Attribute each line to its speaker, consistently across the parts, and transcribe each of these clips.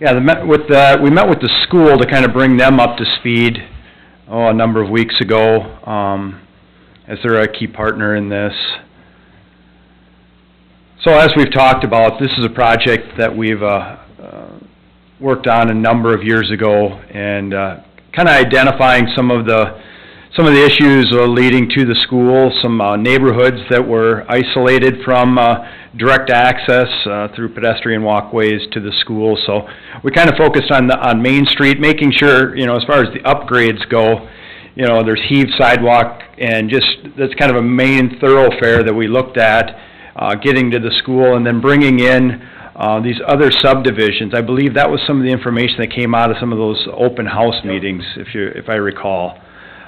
Speaker 1: Yeah, the, met with the, we met with the school to kind of bring them up to speed, oh, a number of weeks ago, um, as they're a key partner in this. So as we've talked about, this is a project that we've, uh, uh, worked on a number of years ago, and, uh, kind of identifying some of the, some of the issues uh, leading to the school, some uh, neighborhoods that were isolated from uh, direct access uh, through pedestrian walkways to the school. So we kind of focused on, the- on Main Street, making sure, you know, as far as the upgrades go, you know, there's heaved sidewalk and just, that's kind of a main thoroughfare that we looked at, uh, getting to the school and then bringing in uh, these other subdivisions. I believe that was some of the information that came out of some of those open house meetings, if you, if I recall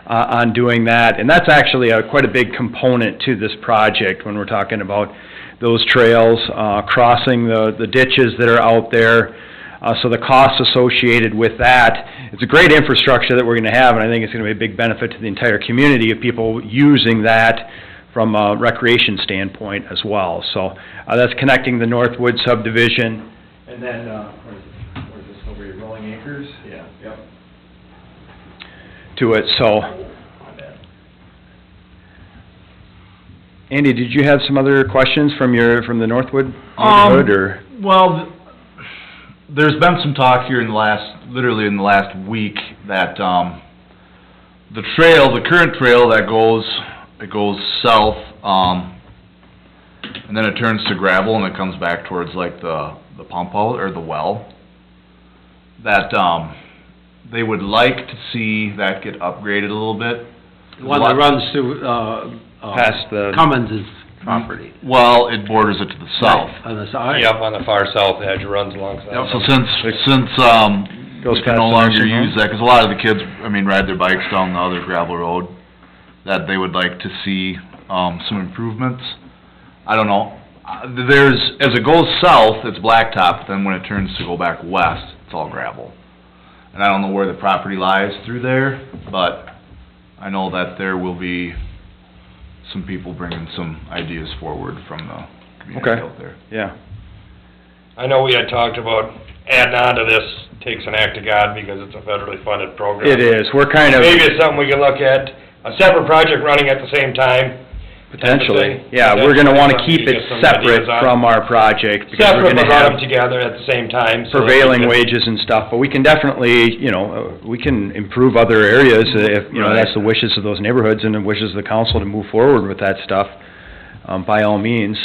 Speaker 1: uh, on doing that. And that's actually a, quite a big component to this project when we're talking about those trails, uh, crossing the, the ditches that are out there. Uh, so the costs associated with that, it's a great infrastructure that we're gonna have, and I think it's gonna be a big benefit to the entire community of people using that from a recreation standpoint as well. So, uh, that's connecting the Northwood subdivision. And then, uh, where is it? Where is this, over here, Rolling Acres? Yeah. Yep. To it,
Speaker 2: Oh.
Speaker 1: so. Andy, did you have some other questions from your, from the Northwood
Speaker 2: Um,
Speaker 1: neighborhood, or?
Speaker 2: Well, th- there's been some talk here in the last, literally in the last week, that, um, the trail, the current trail that goes, it goes south, um, and then it turns to gravel and it comes back towards like the, the pump out or the well, that, um, they would like to see that get upgraded a little bit.
Speaker 3: The one that runs through, uh, uh,
Speaker 1: Past the-
Speaker 3: Cummins' property.
Speaker 2: Mm-hmm. Well, it borders it to the south.
Speaker 3: On the side.
Speaker 4: Yep, on the far south edge, it runs alongside.
Speaker 2: So since, since, um,
Speaker 1: Goes
Speaker 2: we can
Speaker 1: past
Speaker 2: no
Speaker 1: the
Speaker 2: longer
Speaker 1: nursing home?
Speaker 2: use that, 'cause a lot of the kids, I mean, ride their bikes down the other gravel road, that they would like to see, um, some improvements. I don't know, Uh, there's, as it goes south, it's blacktop, then when it turns to go back west, it's all gravel. And I don't know where the property lies through there, but I know that there will be some people bringing some ideas forward from the community
Speaker 1: Okay.
Speaker 2: out there.
Speaker 1: Yeah,
Speaker 4: I know we had talked about adding on to this takes an act of God because it's a federally funded program.
Speaker 1: it is, we're kind of,
Speaker 4: Maybe it's something we can look at, a separate project running at the same time,
Speaker 1: potentially,
Speaker 4: potentially,
Speaker 1: yeah, we're gonna wanna
Speaker 4: potentially,
Speaker 1: keep
Speaker 4: you
Speaker 1: it
Speaker 4: get some
Speaker 1: separate
Speaker 4: ideas on-
Speaker 1: from our project, because we're
Speaker 4: separate but
Speaker 1: gonna
Speaker 4: run them
Speaker 1: have
Speaker 4: together at the same time. so that we
Speaker 1: prevailing
Speaker 4: can-
Speaker 1: wages and stuff, but we can definitely, you know, uh, we can improve other areas if, you know,
Speaker 2: Right.
Speaker 1: that's the wishes of those neighborhoods and the wishes of the council to move forward with that stuff, um, by all means,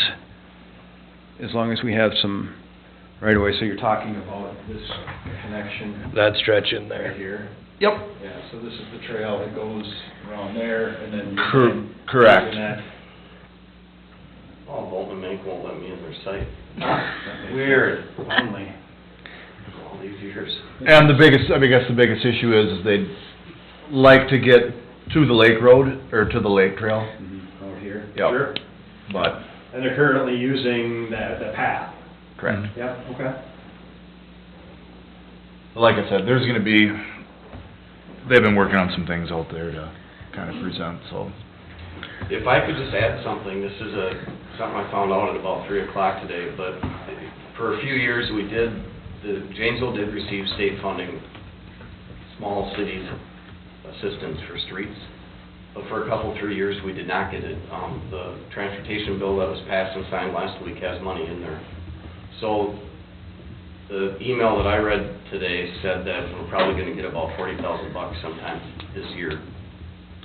Speaker 1: as long as we have some right away. so you're talking about this connection
Speaker 4: That stretch in
Speaker 1: Right
Speaker 4: there.
Speaker 1: here.
Speaker 2: Yep.
Speaker 1: Yeah, so this is the trail that goes around there and then.
Speaker 2: Cor-
Speaker 1: and
Speaker 2: correct.
Speaker 1: using that.
Speaker 5: Oh, Bolton Mink won't let me in their site.
Speaker 1: Weird, lonely.
Speaker 5: All these years.
Speaker 2: And the biggest, I mean, I guess the biggest issue is is they'd like to get to the lake road, or to the lake trail,
Speaker 1: Over here.
Speaker 2: Mm-hmm. Yep.
Speaker 1: Sure.
Speaker 2: but.
Speaker 1: And they're currently using that, the path.
Speaker 2: Correct.
Speaker 1: Yep, okay.
Speaker 2: Like I said, there's gonna be, they've been working on some things out there to kind of present, so.
Speaker 5: If I could just add something, this is a, something I found out at about three o'clock today, but for a few years, we did, the, Janesville did receive state funding, small cities assistance for streets, but for a couple, three years, we did not get it. Um, the transportation bill that was passed and signed last week has money in there. So, the email that I read today said that we're probably gonna get about forty thousand bucks sometime this year.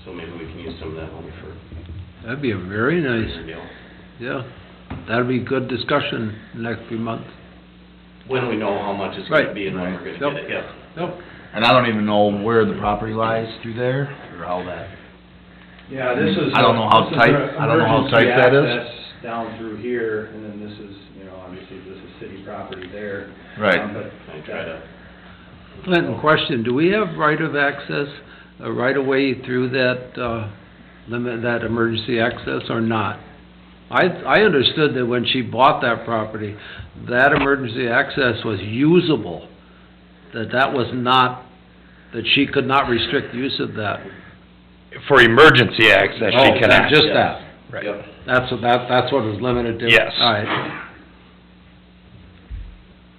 Speaker 5: So maybe we can use some of that money for
Speaker 3: That'd be a very
Speaker 5: your
Speaker 3: nice,
Speaker 5: deal.
Speaker 3: yeah, that'd be good discussion in the next few months.
Speaker 5: When we know how much it's gonna
Speaker 3: Right.
Speaker 5: be and when we're gonna get it, yeah.
Speaker 3: Nope.
Speaker 2: And I don't even know where the property lies through there, or how that.
Speaker 1: Yeah, this is.
Speaker 2: I don't know how
Speaker 1: this is
Speaker 2: tight-
Speaker 1: a-
Speaker 2: I don't know how
Speaker 1: emergency
Speaker 2: tight that is.
Speaker 1: access Down through here, and then this is, you know, obviously this is city property there.
Speaker 2: Right.
Speaker 1: Um, but
Speaker 5: I try to,
Speaker 3: Clinton, question, do we have right of access, uh, right of way through that, uh, limit, that emergency access or not? I, I understood that when she bought that property, that emergency access was usable, that that was not, that she could not restrict use of that.
Speaker 4: For emergency access,
Speaker 3: Oh,
Speaker 4: she cannot.
Speaker 3: Just that,
Speaker 4: Right.
Speaker 5: yep.
Speaker 3: that's, what- that, that's what it was limited to?
Speaker 4: Yes.
Speaker 3: All right,